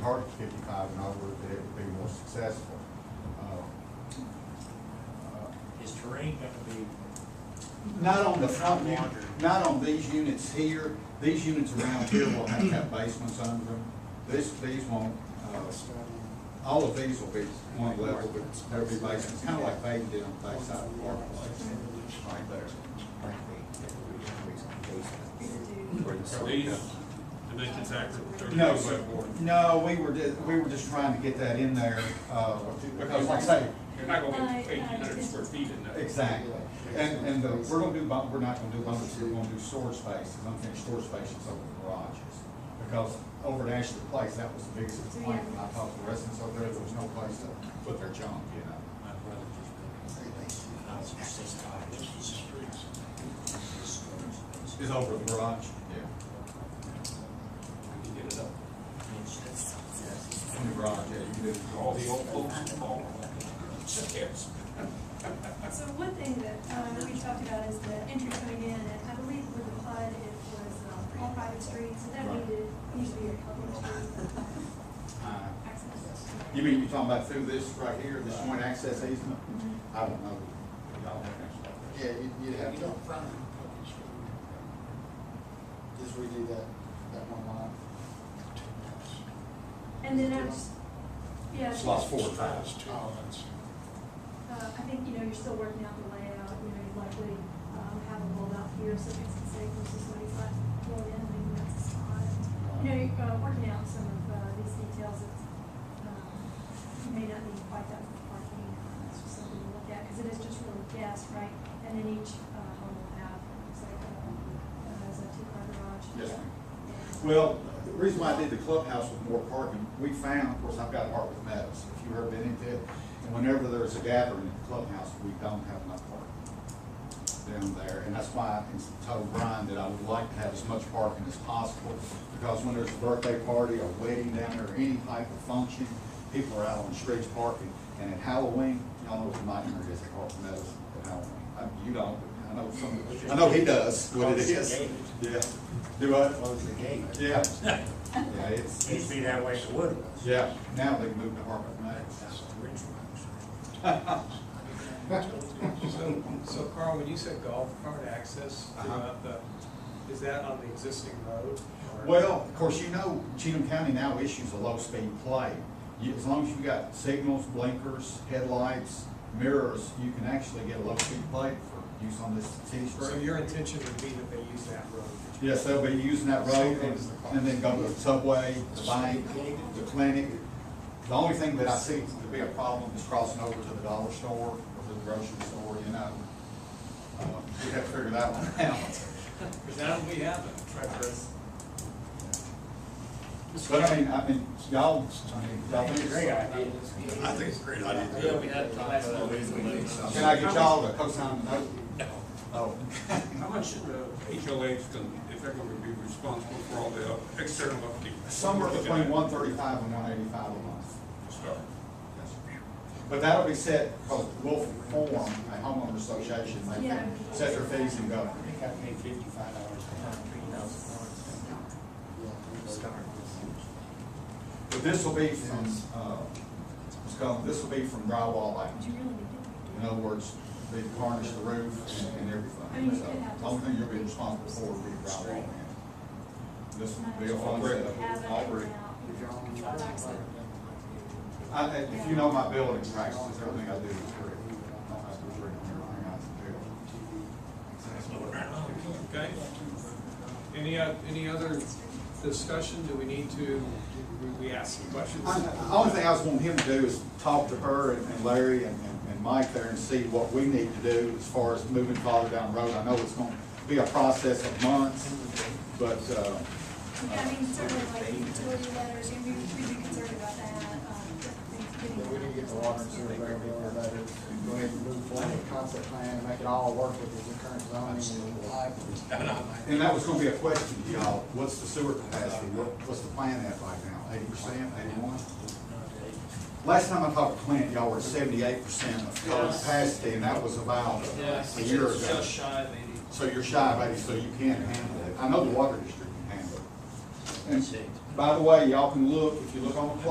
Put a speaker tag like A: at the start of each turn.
A: target fifty-five and over, that it would be more successful. Uh, uh,
B: Is terrain gonna be,
A: Not on the front, un- not on these units here, these units around here will have to have basements under them. This, these won't, uh, all of these will be one level, but there'll be basements, kinda like Baden did on the backside of Park Place, right
C: Are
A: there.
C: these dimensions accurate? Or
A: No,
C: is it
A: but, no, we were, ju- we were just trying to get that in there, uh, because like I say,
C: You're not going to
D: No,
C: get eighteen hundred
D: it's-
C: square feet in that.
A: Exactly, and, and the, we're gonna do, bunk- we're not gonna do bunkers, we're gonna do storage spaces, unfinished storage spaces over the garages. Because over at Ashley Place, that was the biggest complaint, when I talked to residents over there, there was no place to put their junk, you know?
B: my brother just built a house for six dollars.
A: Is over the garage? Yeah.
C: We can get it up.
A: In the garage, yeah, you can do it.
C: All the old folks involved. Yes.
D: So one thing that, um, we talked about is the entry coming in, and I believe with the PUD, it was um, all private streets, and that
A: Right.
D: needed, needs to be a public street
A: Uh,
D: access.
A: You mean, you talking about through this right here, this joint access easement?
D: Mhm.
A: I don't know.
E: Yeah, you, you'd have
F: You
E: to,
F: don't front on Puckett Street.
E: just redo that, that one line.
D: And then I was, yeah, uh,
A: Slots four and five.
F: It's two lots.
D: I think, you know, you're still working out the layout, you know, you likely, um, have a holdout here, so it's the same versus what he's like, well, in, maybe that's a spot. You know, you're, uh, working out some of, uh, these details, it's, um, you may not need quite that much parking, uh, it's just something to look at, because it is just really gas, right? And then each, uh, home will have, it's like, um, uh, it's a two-car garage.
A: Yes, ma'am.
D: Yeah.
A: Well, the reason why I did the clubhouse with more parking, we found, of course, I've got art with metals, if you've ever been into it. And whenever there's a gathering at the clubhouse, we don't have enough parking down there. And that's why I told Brian that I would like to have as much parking as possible. Because when there's a birthday party or wedding down there, or any type of function, people are out on the streets parking. And at Halloween, y'all know what the nightmare is at Art with Metals at Halloween. Uh, You don't, but I know some, I know he does what it is. Yeah. Do I?
F: Close the gate.
A: Yeah. Yeah, it's,
B: It used to be that way at Woodward.
A: yeah, now they moved to Harvard Max.
F: That's the original.
G: So, so Carl, when you said golf cart access throughout the, is that on the existing road? or-
A: Well, of course, you know, Cheatham County now issues a low-speed play. You- As long as you've got signals, blinkers, headlights, mirrors, you can actually get a low-speed play for use on this T
G: So
A: street.
G: your intention would be that they use that road?
A: Yes, they'll be using that road and and then go to the subway, the bank, the clinic. The only thing that I see to be a problem is crossing over to the dollar store or to the grocery store, you know. Uh, We have to figure that one out.
G: Because now we have a treacherous.
A: But I mean, I mean, y'all, I mean, y'all think it's
B: Great idea.
F: I think it's a great idea.
C: Yeah, we had it last
F: month.
A: Can I get y'all to co-sign the note? Oh,
C: How much uh, should the HOAs, can- if they're gonna be responsible for all the external upkeep?
A: somewhere between one thirty-five and one eighty-five a month.
C: To start.
A: But that'll be set, because we'll form a homeowner association, they
D: Yeah.
A: can set their fees and go.
B: I think I paid fifty-five dollars for that, three thousand dollars.
A: But this will be from, uh, what's called, this will be from drywall
D: But
A: out.
D: you really need
A: In other words, they varnish the roof and- and everything. So, only thing you'll be responsible for will be drywall in. This will be a fun
D: to have it
A: setup.
D: now.
A: I, I- if you know my building practices, everything I do is free. I don't have to worry about everything I have
G: Okay. Any, oth- any other discussion? Do we need to, we- we ask some questions?
A: to do. I- The only thing I was wanting him to do is talk to her and and Larry and, and- and Mike there and see what we need to do as far as moving farther down the road. I know it's gonna be a process of months, but, uh,
D: Yeah, I mean, certainly like utility letters, you'd be, we'd be concerned about that, um, things getting.
E: Yeah, we didn't get the water and sewer regular, but go ahead and move forward with the concept plan and make it all work with the current zoning and life.
A: and that was gonna be a question to y'all. What's the sewer capacity? What, what's the plan at right now? Eighty percent, eighty-one? Last time I talked to Clint, y'all were seventy-eight percent of total capacity, and that was about a year ago.
H: shy of eighty.
A: So you're shy, buddy, so you can't handle it. I know the water district can handle it. And By the way, y'all can look, if you look on the clock,